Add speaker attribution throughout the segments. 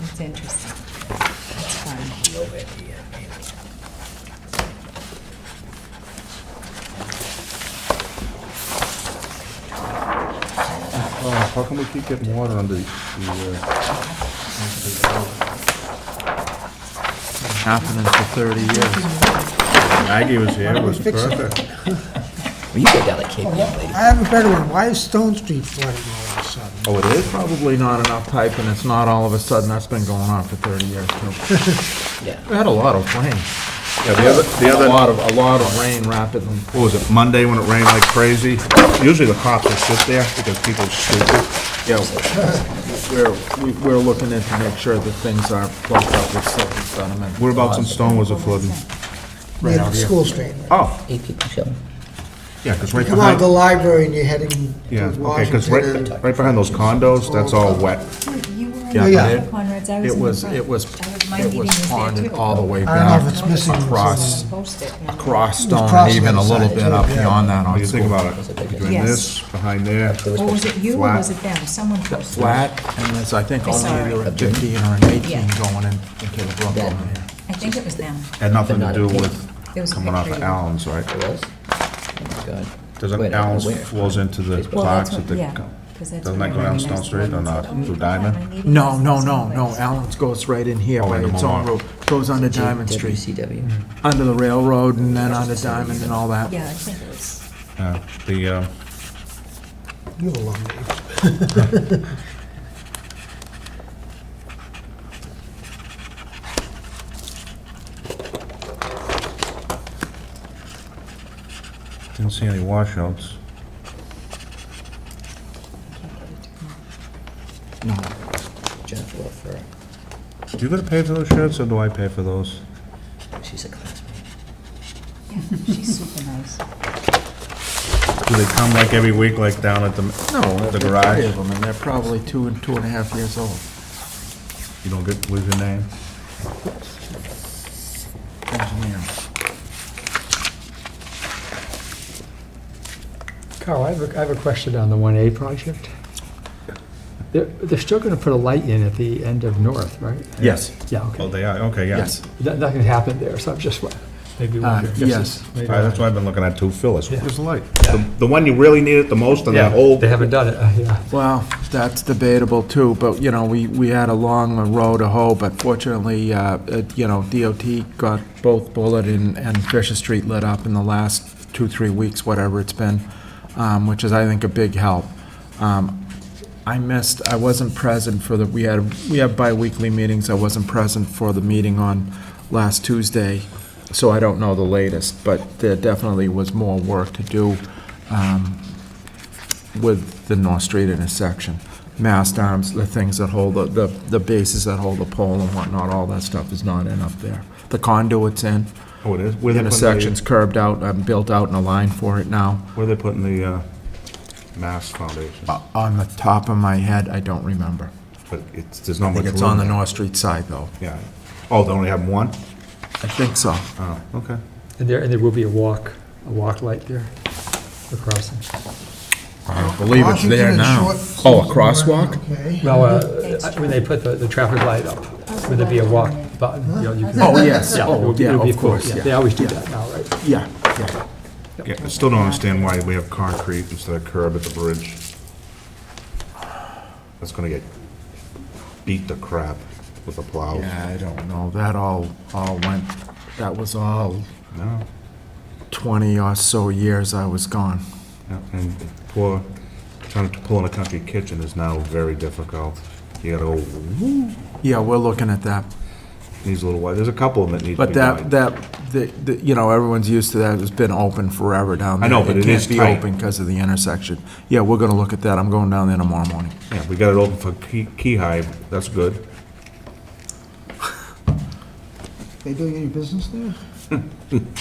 Speaker 1: It's interesting. That's fun.
Speaker 2: Oh, how come we keep getting water under the, the, uh,
Speaker 3: happening for 30 years.
Speaker 2: Maggie was here, it was
Speaker 4: Fix it.
Speaker 2: perfect.
Speaker 5: Well, you go down to Cape Cod later.
Speaker 4: I have a better one. Why is Stone Street flooding all of a sudden?
Speaker 2: Oh, it is?
Speaker 3: Probably not enough type, and it's not all of a sudden, that's been going on for 30 years, too.
Speaker 5: Yeah.
Speaker 3: We had a lot of rain,
Speaker 2: Yeah, the other, the
Speaker 3: a
Speaker 2: other,
Speaker 3: lot of, a lot of rain rapidly.
Speaker 2: what was it, Monday when it rained like crazy? Usually the cops will sit there because people are stupid.
Speaker 3: Yeah, we're, we- we're looking in to make sure that things are plugged up with silt and sediment.
Speaker 2: Whereabouts in Stone was it flooding?
Speaker 3: Right
Speaker 4: Yeah,
Speaker 3: out here.
Speaker 4: School Street.
Speaker 2: Oh,
Speaker 5: Eight people show.
Speaker 2: yeah, because right
Speaker 4: Come out of the
Speaker 2: behind,
Speaker 4: library and you're heading
Speaker 2: yeah,
Speaker 4: towards
Speaker 2: okay, because
Speaker 4: Washington.
Speaker 2: right,
Speaker 4: and-
Speaker 2: right behind those condos, that's all wet.
Speaker 1: You were in
Speaker 3: Yeah,
Speaker 1: the
Speaker 4: yeah.
Speaker 1: back of Conrad's, I was
Speaker 3: It
Speaker 1: in the
Speaker 3: was,
Speaker 1: front.
Speaker 3: it was,
Speaker 1: I my
Speaker 3: it
Speaker 1: meeting
Speaker 3: was
Speaker 1: there
Speaker 3: ponded
Speaker 1: too.
Speaker 3: all the way
Speaker 4: I don't know
Speaker 3: back
Speaker 4: if it's missing.
Speaker 3: across,
Speaker 1: Posted, and I'm like,
Speaker 3: across Stone,
Speaker 4: crossing
Speaker 3: even a
Speaker 4: the
Speaker 3: little
Speaker 4: side,
Speaker 3: bit up
Speaker 4: yeah.
Speaker 3: beyond that
Speaker 2: Oh,
Speaker 3: on
Speaker 2: you think
Speaker 3: school.
Speaker 2: about it, between
Speaker 1: Yes.
Speaker 2: this, behind there.
Speaker 1: Or was it you or
Speaker 2: Flat.
Speaker 1: was it them? Someone posted.
Speaker 3: Flat, and there's, I think,
Speaker 1: I
Speaker 3: only
Speaker 1: saw it.
Speaker 3: either a 15 or an 18
Speaker 1: Yeah.
Speaker 3: going in, into the brook
Speaker 5: Yeah.
Speaker 3: over here.
Speaker 1: I think it was them.
Speaker 2: Had nothing
Speaker 5: But
Speaker 2: to
Speaker 5: not
Speaker 2: do
Speaker 5: a peak.
Speaker 1: There was
Speaker 2: with
Speaker 1: a
Speaker 2: coming off of
Speaker 1: picture.
Speaker 2: Allen's, right?
Speaker 5: It was? Oh my God. Wait, I
Speaker 2: Doesn't
Speaker 5: don't know
Speaker 2: Allen's
Speaker 5: where.
Speaker 2: flows into the
Speaker 1: Well, that's
Speaker 2: docks
Speaker 1: what,
Speaker 2: at the,
Speaker 1: yeah.
Speaker 2: co-
Speaker 1: 'cause that's
Speaker 2: doesn't
Speaker 1: what
Speaker 2: that go
Speaker 1: I
Speaker 2: down
Speaker 1: recognized
Speaker 2: Stone Street
Speaker 1: when
Speaker 2: on,
Speaker 1: I
Speaker 2: uh,
Speaker 1: said, oh my
Speaker 2: through
Speaker 1: God, my
Speaker 2: Diamond?
Speaker 1: meeting
Speaker 3: No,
Speaker 1: is
Speaker 3: no,
Speaker 1: in
Speaker 3: no,
Speaker 1: some
Speaker 3: no,
Speaker 1: place.
Speaker 3: Allen's goes right in here
Speaker 2: Oh,
Speaker 3: by
Speaker 2: into
Speaker 3: its own
Speaker 2: Monmouth.
Speaker 3: road, goes under Diamond Street,
Speaker 5: WCW.
Speaker 3: under the railroad and then under Diamond and all that.
Speaker 1: Yeah, I think it was.
Speaker 2: Uh, The, uh,
Speaker 4: You have a long way.
Speaker 2: didn't see any washouts.
Speaker 3: No,
Speaker 5: Jennifer Leffer.
Speaker 2: Do you gotta pay for those shirts, or do I pay for those?
Speaker 5: She's a classmate.
Speaker 1: Yeah, she's super nice.
Speaker 2: Do they come like every week, like down at the,
Speaker 3: no,
Speaker 2: the
Speaker 3: there's three
Speaker 2: garage?
Speaker 3: of them, and they're probably two and two and a half years old.
Speaker 2: You don't get, what's your name?
Speaker 3: Engineer.
Speaker 6: Carl, I have, a I have a question on the 1A project. They're, they're still going to put a light in at the end of North, right?
Speaker 3: Yes.
Speaker 6: Yeah,
Speaker 2: Oh,
Speaker 6: okay.
Speaker 2: they are, okay, yeah.
Speaker 3: Yes.
Speaker 6: That- Nothing happened there, so I'm just, wa- maybe
Speaker 3: Uh,
Speaker 6: wondering.
Speaker 3: yes.
Speaker 6: Maybe-
Speaker 2: All right, That's why I've been looking at two fillers.
Speaker 6: Yeah.
Speaker 2: Where's the light? The- The one you really need it the most on that
Speaker 6: Yeah,
Speaker 2: whole,
Speaker 6: they haven't done it, uh, yeah.
Speaker 3: Well, that's debatable too, but, you know, we, we had a long road to hoe, but fortunately, uh, it- you know, DOT got both Bullet and, and Fisher Street lit up in the last two, three weeks, whatever it's been, um, which is, I think, a big help. Um, I missed, I wasn't present for the, we had, we have bi-weekly meetings, I wasn't present for the meeting on last Tuesday, so I don't know the latest, but there definitely was more work to do, um, with the North Street intersection. Mast arms, the things that hold, the- the, the bases that hold the pole and whatnot, all that stuff is not in up there. The conduit's in,
Speaker 2: oh, it is? Where they putting the-
Speaker 3: intersection's curbed out, i built out in a line for it now.
Speaker 2: Where they putting the, uh, mass foundation?
Speaker 3: Uh, On the top of my head, I don't remember.
Speaker 2: But it's, there's not
Speaker 3: I
Speaker 2: much
Speaker 3: think
Speaker 2: room.
Speaker 3: it's on the
Speaker 2: there.
Speaker 3: North Street side, though.
Speaker 2: Yeah. Oh, they only have one?
Speaker 3: I think so.
Speaker 2: Oh, okay.
Speaker 6: And there, and there will be a walk, a walk light there, a crossing.
Speaker 3: I believe it's there
Speaker 4: Washington
Speaker 3: now.
Speaker 4: and Short-
Speaker 3: Oh, a crosswalk?
Speaker 4: Okay.
Speaker 6: Well, uh, when they put the, the traffic light up, would there be a walk button? you know, you can-
Speaker 3: Oh, yes,
Speaker 6: Yeah, it
Speaker 3: oh,
Speaker 6: would be- it
Speaker 3: yeah,
Speaker 6: would be
Speaker 3: of
Speaker 6: cool.
Speaker 3: course,
Speaker 6: They
Speaker 3: yeah,
Speaker 6: always do that now, right?
Speaker 3: yeah, yeah.
Speaker 2: Yeah, I still don't understand why we have concrete instead of curb at the bridge. That's gonna get beat to crap with a plow.
Speaker 3: Yeah, I don't know, that all, all went, that was all
Speaker 2: No,
Speaker 3: 20 or so years I was gone.
Speaker 2: no, and poor, trying to pull in a country kitchen is now very difficult. You gotta go, whoop,
Speaker 3: Yeah, we're looking at that.
Speaker 2: needs a little white, there's a couple of them that need to be
Speaker 3: But that,
Speaker 2: done.
Speaker 3: that, the- the- you know, everyone's used to that, it's been open forever down
Speaker 2: I
Speaker 3: there.
Speaker 2: know, but it is tight.
Speaker 3: It can't be open because of the intersection. Yeah, we're gonna look at that, I'm going down there tomorrow morning.
Speaker 2: Yeah, we got it open for Key, Key Hive, that's good.
Speaker 4: They doing any business there?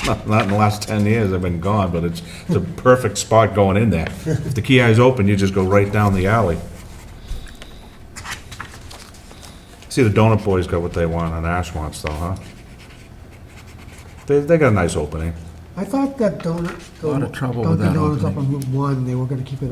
Speaker 2: Not, not in the last ten years, I've been gone, but it's, it's a perfect spot going in there. If the Key Hive's open, you just go right down the alley. See, the Donut Boys got what they want on Ashwants though, huh? They, they got a nice opening.
Speaker 4: I thought that donut,
Speaker 3: Lot of trouble with
Speaker 4: Dunkin'
Speaker 3: that
Speaker 4: Donuts up
Speaker 3: opening.
Speaker 4: on Route 1, they were going to keep it